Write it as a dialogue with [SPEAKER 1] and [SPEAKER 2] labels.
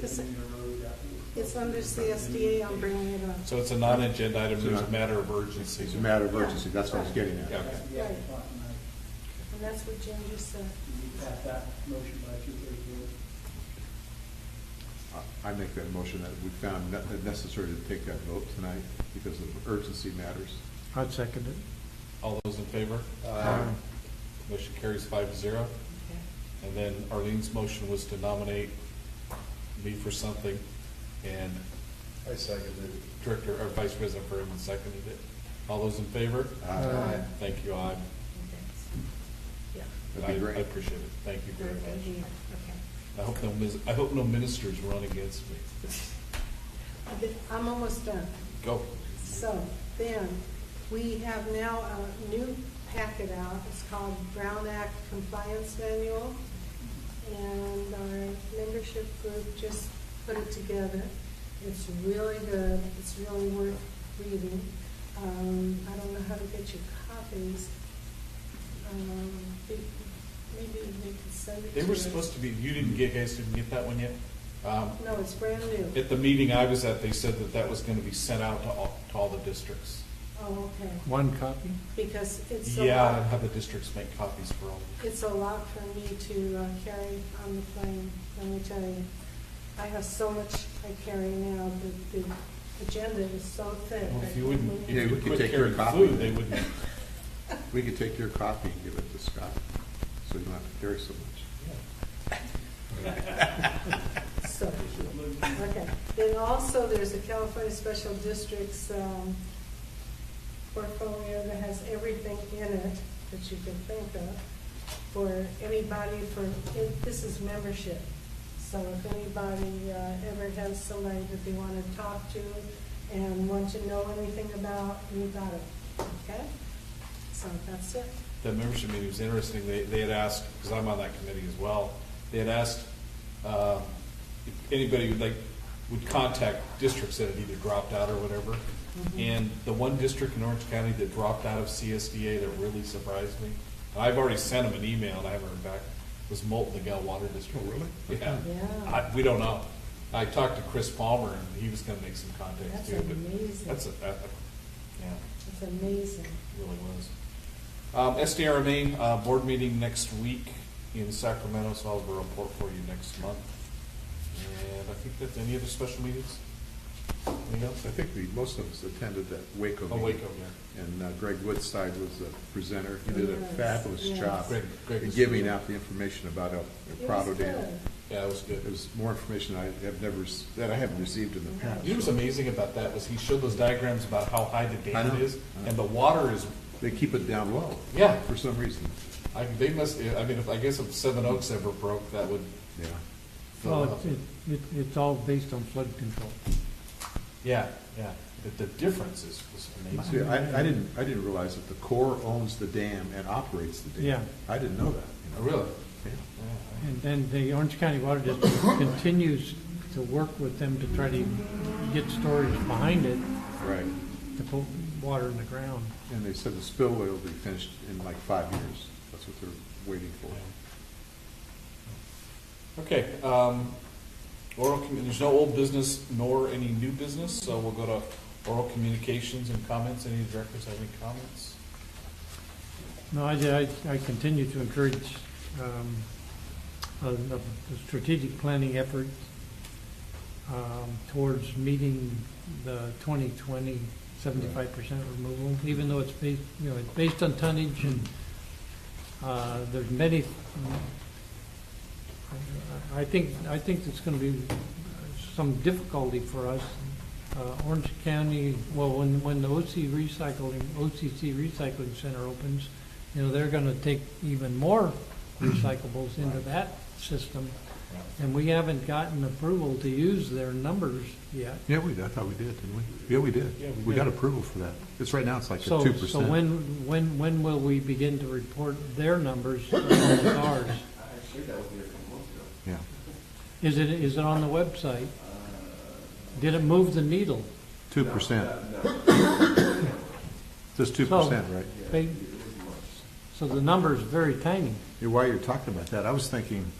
[SPEAKER 1] This-
[SPEAKER 2] Indian Road afterwards.
[SPEAKER 1] It's under CSDA, I'm bringing it up.
[SPEAKER 3] So it's a non-agenda item, it's a matter of urgency.
[SPEAKER 4] It's a matter of urgency, that's what I was getting
[SPEAKER 3] Yeah.
[SPEAKER 4] at.
[SPEAKER 2] That's the action plan tonight.
[SPEAKER 1] And that's what Jim just said.
[SPEAKER 2] You pass that motion by two-thirds vote.
[SPEAKER 4] Uh, I- I make that motion that we found ne- it necessary to take that vote tonight because of urgency matters.
[SPEAKER 5] I'd second it.
[SPEAKER 3] All those in favor?
[SPEAKER 4] Aye.
[SPEAKER 3] Motion carries five zero. And then Arlene's motion was to nominate me for something, and
[SPEAKER 6] I seconded it.
[SPEAKER 3] Director, or Vice President Berman seconded it. All those in favor?
[SPEAKER 5] Aye.
[SPEAKER 3] Thank you, I,
[SPEAKER 1] Yeah.
[SPEAKER 4] That'd
[SPEAKER 3] I
[SPEAKER 4] be
[SPEAKER 3] I
[SPEAKER 4] great.
[SPEAKER 3] appreciate it. Thank you very
[SPEAKER 1] Thank
[SPEAKER 3] much.
[SPEAKER 1] you. Okay.
[SPEAKER 3] I hope no, mis- I hope no ministers run against me.
[SPEAKER 1] I did- I'm almost done.
[SPEAKER 3] Go.
[SPEAKER 1] So then, we have now a new packet out. It's called Brown Act Compliance Manual. And our membership group just put it together. It's really good. It's really worth reading. Um, I don't know how to get you copies. Um, maybe we can send it to
[SPEAKER 3] They
[SPEAKER 1] you.
[SPEAKER 3] were supposed to be, you didn't get, guys didn't get that one yet? Um,
[SPEAKER 1] No, it's brand new.
[SPEAKER 3] At the meeting I was at, they said that that was gonna be sent out to all, to all the districts.
[SPEAKER 1] Oh, okay.
[SPEAKER 5] One copy?
[SPEAKER 1] Because it's a
[SPEAKER 3] Yeah, and
[SPEAKER 1] lot-
[SPEAKER 3] how the districts make copies for all of them.
[SPEAKER 1] It's a lot for me to uh, carry on the plane, let me tell you. I have so much I carry now, the, the agenda is so thick.
[SPEAKER 3] Well, If you wouldn't, if
[SPEAKER 4] Yeah, we
[SPEAKER 3] you
[SPEAKER 4] could
[SPEAKER 3] quit
[SPEAKER 4] take your
[SPEAKER 3] carrying
[SPEAKER 4] copy.
[SPEAKER 3] food, they wouldn't.
[SPEAKER 4] We could take your copy and give it to Scott, so you don't have to carry so much.
[SPEAKER 1] So cute. Okay. Then also, there's a California Special Districts um, portfolio that has everything in it that you can think of for anybody for, it- this is membership. So if anybody uh, ever has somebody that they want to talk to and want to know anything about, you got it, okay? So that's it.
[SPEAKER 3] That membership meeting was interesting. They, they had asked, because I'm on that committee as well, they had asked, um, if anybody would like, would contact districts that had either dropped out or whatever.
[SPEAKER 1] Mm-hmm.
[SPEAKER 3] And the one district in Orange County that dropped out of CSDA that really surprised me, and I've already sent them an email and I haven't heard back, was Molten Miguel Water District.
[SPEAKER 4] Oh, really?
[SPEAKER 3] Yeah.
[SPEAKER 1] Yeah.
[SPEAKER 3] I, we don't know. I talked to Chris Palmer and he was gonna make some contacts
[SPEAKER 1] That's
[SPEAKER 3] too, but.
[SPEAKER 1] amazing.
[SPEAKER 3] That's, a- that, yeah
[SPEAKER 1] It's amazing.
[SPEAKER 3] really was. Um, SDRMA, uh, board meeting next week in Sacramento, so I'll have a report for you next month. And I think that's, any other special meetings? Anything else?
[SPEAKER 4] I think we, most of us attended that Waco
[SPEAKER 3] Oh,
[SPEAKER 4] meeting.
[SPEAKER 3] Waco, yeah.
[SPEAKER 4] And uh, Greg Woodside was the presenter. He did a
[SPEAKER 1] Yes,
[SPEAKER 4] fabulous
[SPEAKER 1] yes.
[SPEAKER 4] job
[SPEAKER 3] Greg- Greg
[SPEAKER 4] in
[SPEAKER 3] was
[SPEAKER 4] giving
[SPEAKER 3] good.
[SPEAKER 4] out the information about El El
[SPEAKER 1] It
[SPEAKER 4] Prado
[SPEAKER 1] was
[SPEAKER 4] Dam.
[SPEAKER 1] good.
[SPEAKER 3] Yeah, it was
[SPEAKER 4] It
[SPEAKER 3] good.
[SPEAKER 4] was more information I have never, s- that I haven't received in the past.
[SPEAKER 3] He was amazing about that, was he showed those diagrams about how high the
[SPEAKER 4] I
[SPEAKER 3] dam
[SPEAKER 4] know.
[SPEAKER 3] is, and the water is,
[SPEAKER 4] They keep it down low.
[SPEAKER 3] Yeah.
[SPEAKER 4] For some reason,
[SPEAKER 3] I, they must, I mean, if, I guess if Seven Oaks ever broke, that would
[SPEAKER 4] yeah. Oh,
[SPEAKER 3] fill
[SPEAKER 5] Well,
[SPEAKER 3] up.
[SPEAKER 5] it, it, it's all based on flood control.
[SPEAKER 3] Yeah, yeah, the, the difference is, was amazing.
[SPEAKER 4] See, I, I didn't, I didn't realize that the Corps owns the dam and operates the dam.
[SPEAKER 5] Yeah.
[SPEAKER 4] I didn't know that. you know.
[SPEAKER 3] Oh, Really?
[SPEAKER 4] Yeah.
[SPEAKER 3] Yeah.
[SPEAKER 5] And then the Orange County Water District continues to work with them to try to get storage behind it
[SPEAKER 4] Right.
[SPEAKER 5] to put water in the ground.
[SPEAKER 4] And they said the spillway will be finished in like five years. That's what they're waiting for.
[SPEAKER 3] Okay, um, oral, commu- there's no old business nor any new business, so we'll go to oral communications and comments. Any directors have any comments?
[SPEAKER 5] No, I, I, I continue to encourage, um, a, a strategic planning effort, um, towards meeting the 2020 75 percent removal, even though it's based, you know, it's based on tonnage and, uh, there's many, I I think, I think it's gonna be some difficulty for us. Uh, Orange County, well, when, when the OC recycling, OCC recycling center opens, you know, they're gonna take even more recyclables into that system. And we haven't gotten approval to use their numbers yet.
[SPEAKER 4] Yeah, we, I thought we did, didn't we? Yeah, we did.
[SPEAKER 3] Yeah, we
[SPEAKER 4] We
[SPEAKER 5] did.
[SPEAKER 4] got approval for that. It's right now, it's like a
[SPEAKER 5] So,
[SPEAKER 4] two percent.
[SPEAKER 5] so when, when, when will we begin to report their numbers as ours?
[SPEAKER 4] Yeah.
[SPEAKER 5] Is it, is it on the website? Did it move the needle?
[SPEAKER 4] Two percent. Just two percent, right?
[SPEAKER 5] They- So the number is very tiny.
[SPEAKER 4] Yeah, While you're talking about that, I was thinking,